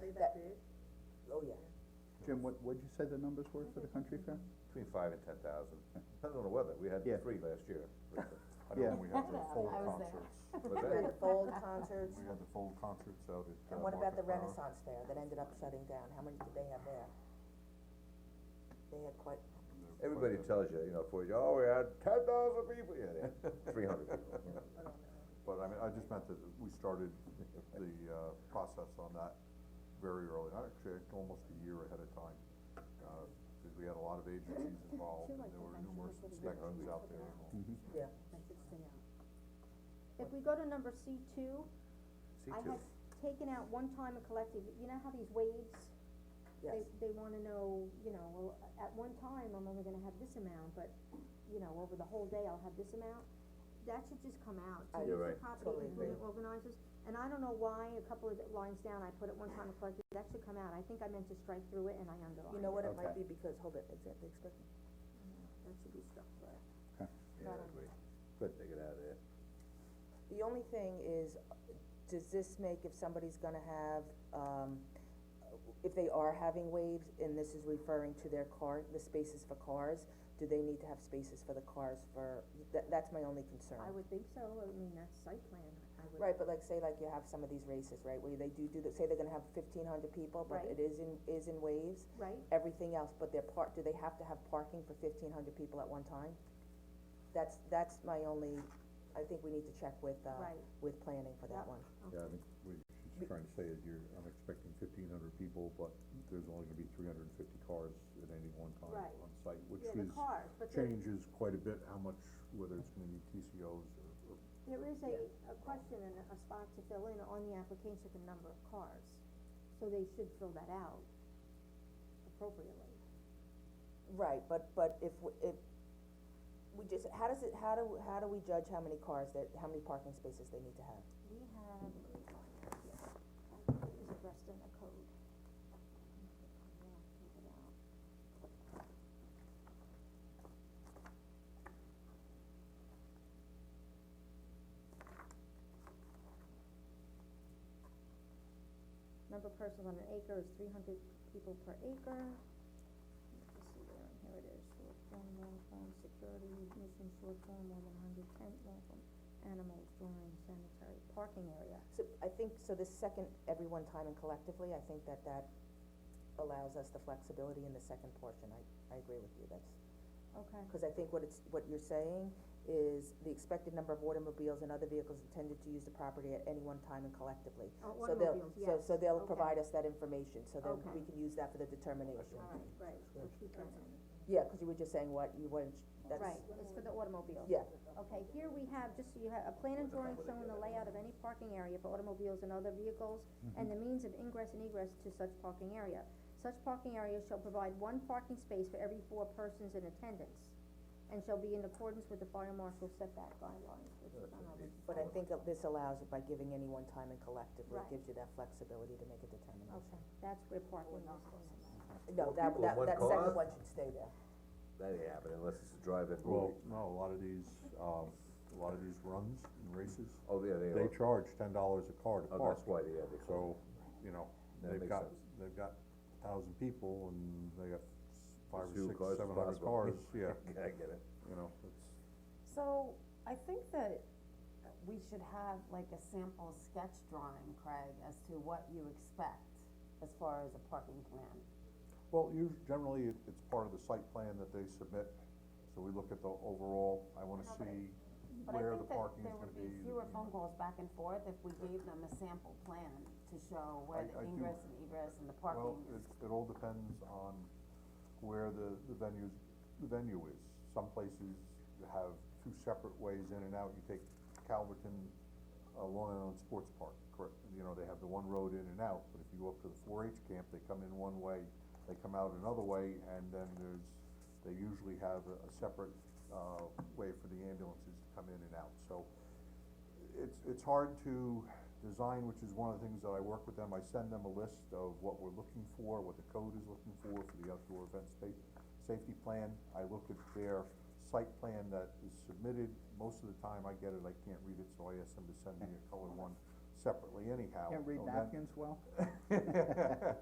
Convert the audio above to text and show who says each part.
Speaker 1: for that period?
Speaker 2: Oh, yeah.
Speaker 3: Jim, what, what'd you say the numbers were for the country fair?
Speaker 4: Between five and ten thousand, depends on the weather, we had
Speaker 3: Yeah.
Speaker 4: three last year.
Speaker 5: I know
Speaker 3: Yeah.
Speaker 5: when we had the full
Speaker 6: I
Speaker 4: Was
Speaker 5: concerts,
Speaker 6: was there.
Speaker 2: We had
Speaker 4: that,
Speaker 2: the fold concerts,
Speaker 5: we had the full concerts out at. uh,
Speaker 2: and what about the
Speaker 5: Market Power.
Speaker 2: Renaissance Fair that ended up shutting down, how many did they have there? They had quite,
Speaker 4: everybody tells you, you know, for you, oh, we had ten thousand people, yeah, three hundred people.
Speaker 5: But I mean, I just meant that we started the, uh, process on that very early, actually, almost a year ahead of time. Uh, cause we had a lot of agencies involved, and there were numerous inspections out there. and all.
Speaker 3: Mm-hmm.
Speaker 2: yeah,
Speaker 6: If we go to number C two,
Speaker 4: See
Speaker 6: I
Speaker 4: two,
Speaker 6: had taken out one time and collected, you know how these waves,
Speaker 2: yes.
Speaker 6: they, they wanna know, you know, well, at one time, I'm only gonna have this amount, but, you know, over the whole day, I'll have this amount. That should just come out,
Speaker 2: I-
Speaker 6: to
Speaker 4: You're
Speaker 6: use
Speaker 4: right.
Speaker 6: the
Speaker 2: Oh, Totally
Speaker 6: copy for the
Speaker 2: agree.
Speaker 6: organizers, and I don't know why, a couple of lines down, I put it one time and collected, that should come out, I think I meant to strike through it and I
Speaker 2: You
Speaker 6: underlined
Speaker 2: know
Speaker 6: it,
Speaker 2: what, it might
Speaker 3: Okay.
Speaker 2: be because, hold it, is that the expected?
Speaker 6: that should be struck
Speaker 4: yeah,
Speaker 6: through.
Speaker 4: I agree,
Speaker 3: Good.
Speaker 4: take it out of there.
Speaker 2: The only thing is, does this make if somebody's gonna have, um, if they are having waves, and this is referring to their car, the spaces for cars, do they need to have spaces for the cars for, that, that's my only concern.
Speaker 6: I would think so, I mean, that's site plan, I would.
Speaker 2: Right, but like, say like you have some of these races, right, where they do do, the- say they're gonna have fifteen hundred people, but
Speaker 6: Right.
Speaker 2: it is in, is in waves,
Speaker 6: Right,
Speaker 2: everything else, but their part, do they have to have parking for fifteen hundred people at one time? That's, that's my only, I think we need to check with, uh,
Speaker 6: Right.
Speaker 2: with planning for that
Speaker 6: Yep.
Speaker 2: one.
Speaker 5: Yeah, I think what she's trying to say is you're, I'm expecting fifteen hundred people, but there's only gonna be three hundred and fifty cars at any one time
Speaker 6: Right.
Speaker 5: on site, which
Speaker 6: yeah, the
Speaker 5: is,
Speaker 6: cars, but the.
Speaker 5: changes quite a bit how much, whether it's gonna be TCOs or, or
Speaker 6: There is a, a question and a spot to fill in on the application, the number of cars, so they should fill that out appropriately.
Speaker 2: Right, but, but if, w- if, we just, how does it, how do, how do we judge how many cars that, how many parking spaces they need to have?
Speaker 6: We have, let me find it here. I think it was addressed in the code. Yeah, take it out. Number of persons on an acre is three hundred people per acre. Let me see where, here it is, short form, long form, security, mission, short form, more than hundred tent, long form, animals, drawing, sanitary, parking area.
Speaker 2: So, I think, so this second, every one time and collectively, I think that that allows us the flexibility in the second portion, I, I agree with you, that's,
Speaker 6: Okay.
Speaker 2: cause I think what it's, what you're saying is the expected number of automobiles and other vehicles intended to use the property at any one time and collectively.
Speaker 6: Oh,
Speaker 2: So they'll-
Speaker 6: automobiles, yes.
Speaker 2: So, so they'll
Speaker 6: Okay.
Speaker 2: provide us that information, so then
Speaker 6: Okay.
Speaker 2: we can use that for the determination.
Speaker 6: All right, right, we'll keep that in.
Speaker 2: Yeah, cause you were just saying what, you weren't, that's,
Speaker 6: Right, it's for the automobiles.
Speaker 2: yeah.
Speaker 6: Okay, here we have, just so you have, a plan and drawing showing the layout of any parking area for automobiles and other vehicles,
Speaker 2: Mm-hmm.
Speaker 6: and the means of ingress and egress to such parking area. Such parking area shall provide one parking space for every four persons in attendance, and shall be in accordance with the fire marshal setback guidelines, which is on our.
Speaker 2: But I think that this allows it by giving any one time and collectively,
Speaker 6: Right.
Speaker 2: it gives you that flexibility to make a determination.
Speaker 6: Okay, that's where parking is.
Speaker 2: No,
Speaker 4: Well,
Speaker 2: that,
Speaker 4: people in
Speaker 2: that,
Speaker 4: one
Speaker 2: that second
Speaker 4: car?
Speaker 2: one should stay there.
Speaker 4: That ain't happening unless it's a drive-in
Speaker 5: Well,
Speaker 4: movie,
Speaker 5: no, a lot of these, um, a lot of these runs and races,
Speaker 4: oh, yeah, they are,
Speaker 5: they charge ten dollars a car to
Speaker 4: oh, that's
Speaker 5: park.
Speaker 4: why they had the car.
Speaker 5: So, you know,
Speaker 4: That
Speaker 5: they've
Speaker 4: makes
Speaker 5: got,
Speaker 4: sense.
Speaker 5: they've got a thousand people and they got five
Speaker 4: Two
Speaker 5: or six,
Speaker 4: cars
Speaker 5: seven hundred
Speaker 4: possible.
Speaker 5: cars, yeah,
Speaker 4: I get it.
Speaker 5: you know, it's.
Speaker 7: So, I think that we should have like a sample sketch drawing, Craig, as to what you expect as far as a parking plan.
Speaker 5: Well, you, generally, it- it's part of the site plan that they submit, so we look at the overall, I wanna
Speaker 7: No, but
Speaker 5: see
Speaker 7: But I
Speaker 5: where the
Speaker 7: think that
Speaker 5: parking is
Speaker 7: there
Speaker 5: gonna
Speaker 7: would
Speaker 5: be.
Speaker 7: be
Speaker 5: you
Speaker 7: fewer
Speaker 5: know.
Speaker 7: phone calls back and forth if we gave them a sample plan to
Speaker 5: I-
Speaker 7: show where the
Speaker 5: I do-
Speaker 7: ingress and egress and the parking
Speaker 5: Well,
Speaker 7: is.
Speaker 5: it, it all depends on where the, the venues, the venue is. Some places have two separate ways in and out. You take Calverton, uh, Long Island Sports Park, correct, you know, they have the one road in and out. But if you go up to the four H camp, they come in one way, they come out another way, and then there's, they usually have a, a separate, uh, way for the ambulances to come in and out. So, it's, it's hard to design, which is one of the things that I work with them, I send them a list of what we're looking for, what the code is looking for for the outdoor event space, safety plan, I look at their site plan that is submitted, most of the time I get it, I can't read it, so I ask them to send me a color one, separately anyhow.
Speaker 3: Can't read
Speaker 5: so Oh, that-
Speaker 3: napkins well?